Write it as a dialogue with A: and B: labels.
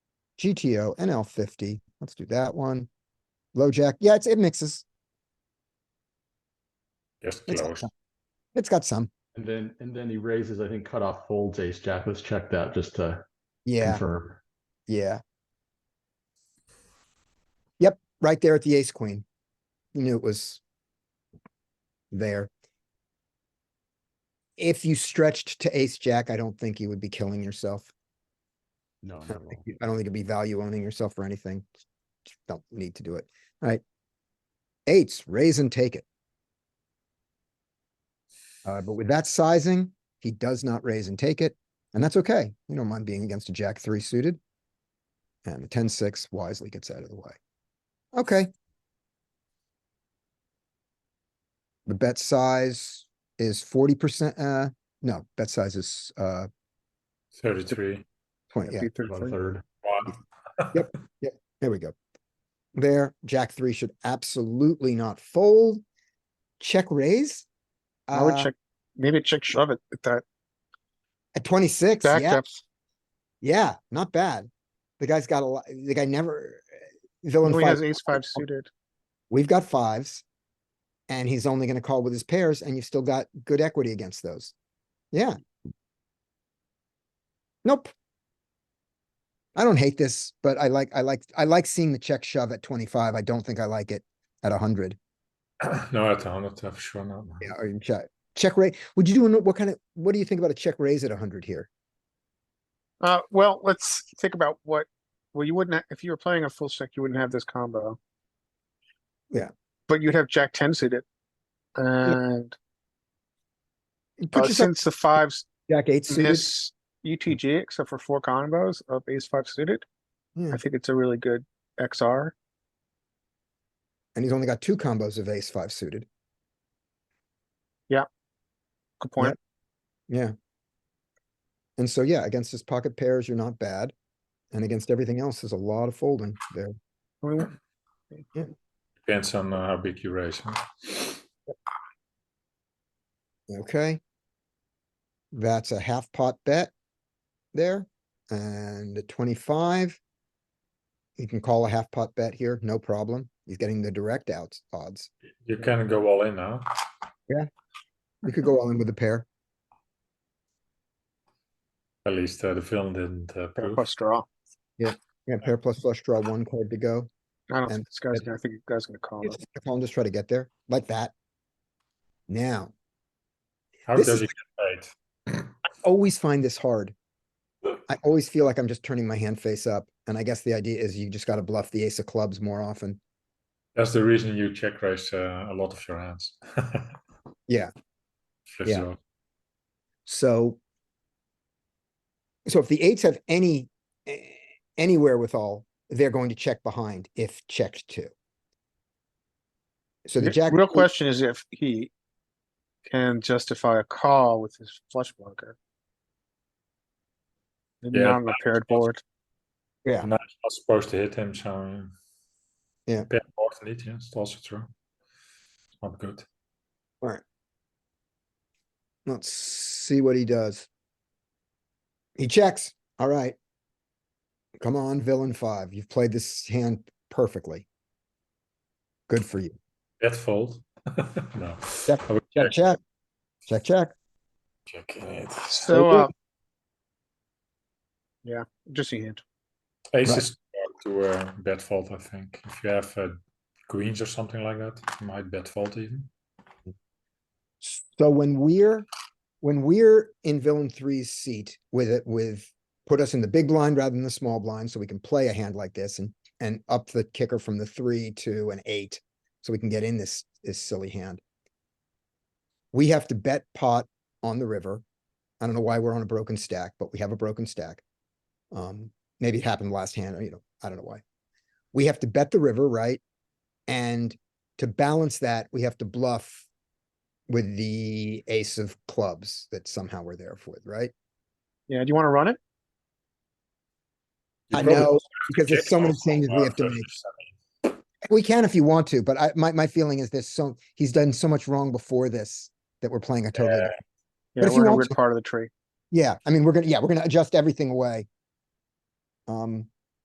A: GTO, NL fifty. Let's do that one. Low jack. Yeah, it's, it mixes.
B: Just
A: It's got
B: close.
A: some. It's got some.
C: And then, and then he raises, I think cutoff folds ace jack. Let's check that just to
A: Yeah,
C: confirm.
A: yeah. Yep, right there at the ace queen. You knew it was there. If you stretched to ace jack, I don't think you would be killing yourself.
C: No,
A: I
C: no,
A: don't think you- I don't need to be value owning yourself or anything. Just Don't need to do it. Alright. Eights, raise and take it. Uh, but with that sizing, he does not raise and take it, and that's okay. We don't mind being against a jack three suited. And the ten six wisely gets out of the way. Okay. The bet size is forty percent, uh, no, bet size is, uh,
B: Thirty-three.
A: twenty, yeah.
C: about a third.
B: One.
A: There we go. There, jack three should absolutely not fold. Check raise.
D: I would
A: Uh,
D: check, maybe check shove it with that
A: at twenty-six,
D: back
A: yeah,
D: depth.
A: yeah, not bad. The guy's got a lot, the guy never. villain
D: Oh, he
A: five-
D: has ace five suited.
A: We've got fives. And he's only gonna call with his pairs and you've still got good equity against those. Yeah. Nope. I don't hate this, but I like, I like, I like seeing the check shove at twenty-five. I don't think I like it at hundred.
B: No, at hundred, I'm sure not.
A: Yeah, or you check, check raise. Would you do, an- what kind of, what do you think about a check raise at hundred here?
D: Uh, well, let's think about what, well, you wouldn't, ha- if you were playing a full stack, you wouldn't have this combo.
A: Yeah.
D: But you'd have jack ten suited. And
A: Put
D: uh,
A: yourself
D: since the fives
A: jack eight suited.
D: miss UTG except for four combos of ace five suited,
A: Yeah,
D: I think it's a really good XR.
A: And he's only got two combos of ace five suited.
D: Good point.
A: Yeah. And so, yeah, against his pocket pairs, you're not bad. And against everything else, there's a lot of folding there.
D: I mean,
B: Depends on uh, how big you raise. huh?
A: Okay. That's a half pot bet there. And at twenty-five. You can call a half pot bet here, no problem. He's getting the direct outs odds.
B: You can go all in now.
A: You could go all in with a pair.
B: At least uh, the villain didn't uh, prove.
D: Plus draw.
A: Yeah, pair plus flush draw, one card to go.
D: I don't
A: And-
D: think this guy's gonna, I think this guy's gonna call it.
A: I'll just try to get there like that. Now,
B: How
A: This
B: does
A: is-
B: he get paid?
A: always find this hard. I always feel like I'm just turning my hand face up, and I guess the idea is you just gotta bluff the ace of clubs more often.
B: That's the reason you check raise uh, a lot of your hands.
A: Yeah.
B: Flips
A: Yeah.
B: it off.
A: So. So if the eights have any, eh, anywhere with all, they're going to check behind if checked to. So the
D: The
A: jack.
D: Real question is if he can justify a call with his flush blocker. Maybe
B: Yeah,
D: not on a paired board.
A: Yeah.
B: And I'm not supposed to hit him, so. uh,
A: Yeah.
B: Pair board indeed, yeah, it's also true. It's Not good.
A: Alright. Let's see what he does. He checks, alright. Come on, villain five, you've played this hand perfectly. Good for you.
B: That fold? No.
A: Check.
B: I would
A: Check, check. Check, check.
B: check it.
D: So,
A: Okay.
D: uh. Yeah, just a hand.
B: Ace
A: Right.
B: is to uh, bet fold, I think. If you have uh, queens or something like that, you might bet fold even.
A: So when we're, when we're in villain three's seat with it, with, put us in the big blind rather than the small blind, so we can play a hand like this and, and up the kicker from the three to an eight. So we can get in this, this silly hand. We have to bet pot on the river. I don't know why we're on a broken stack, but we have a broken stack. Um, maybe it happened last hand, or you know, I don't know why. We have to bet the river, right? And to balance that, we have to bluff with the ace of clubs that somehow we're there for, right?
D: Yeah, do you wanna run it?
B: You
A: I
B: probably
A: know,
B: have to
A: because there's
B: check
A: so many
B: fold
A: changes we
B: now
A: have to
B: versus
A: make.
B: semi.
A: We can if you want to, but I, my, my feeling is this, so, he's done so much wrong before this that we're playing a totally,
B: Yeah.
A: different- But
D: Yeah,
A: if you
D: we're in a
A: want
D: weird
A: to-
D: part of the tree.
A: yeah, I mean, we're gonna, yeah, we're gonna adjust everything away. Um,